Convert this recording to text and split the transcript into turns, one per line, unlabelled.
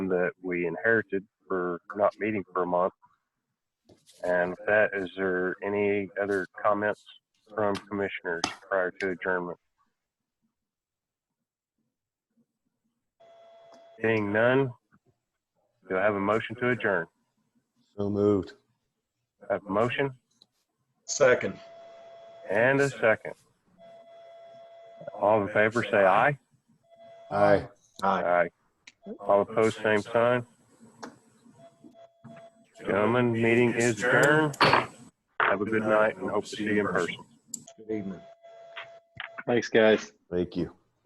that we inherited for not meeting for a month. And with that, is there any other comments from commissioners prior to adjournment? Seeing none, do I have a motion to adjourn?
So moved.
I have a motion
Second.
and a second. All in favor, say aye.
Aye.
Aye.
All opposed, same sign. Gentlemen, meeting is adjourned. Have a good night and hope to see you in person.
Good evening.
Thanks, guys.
Thank you.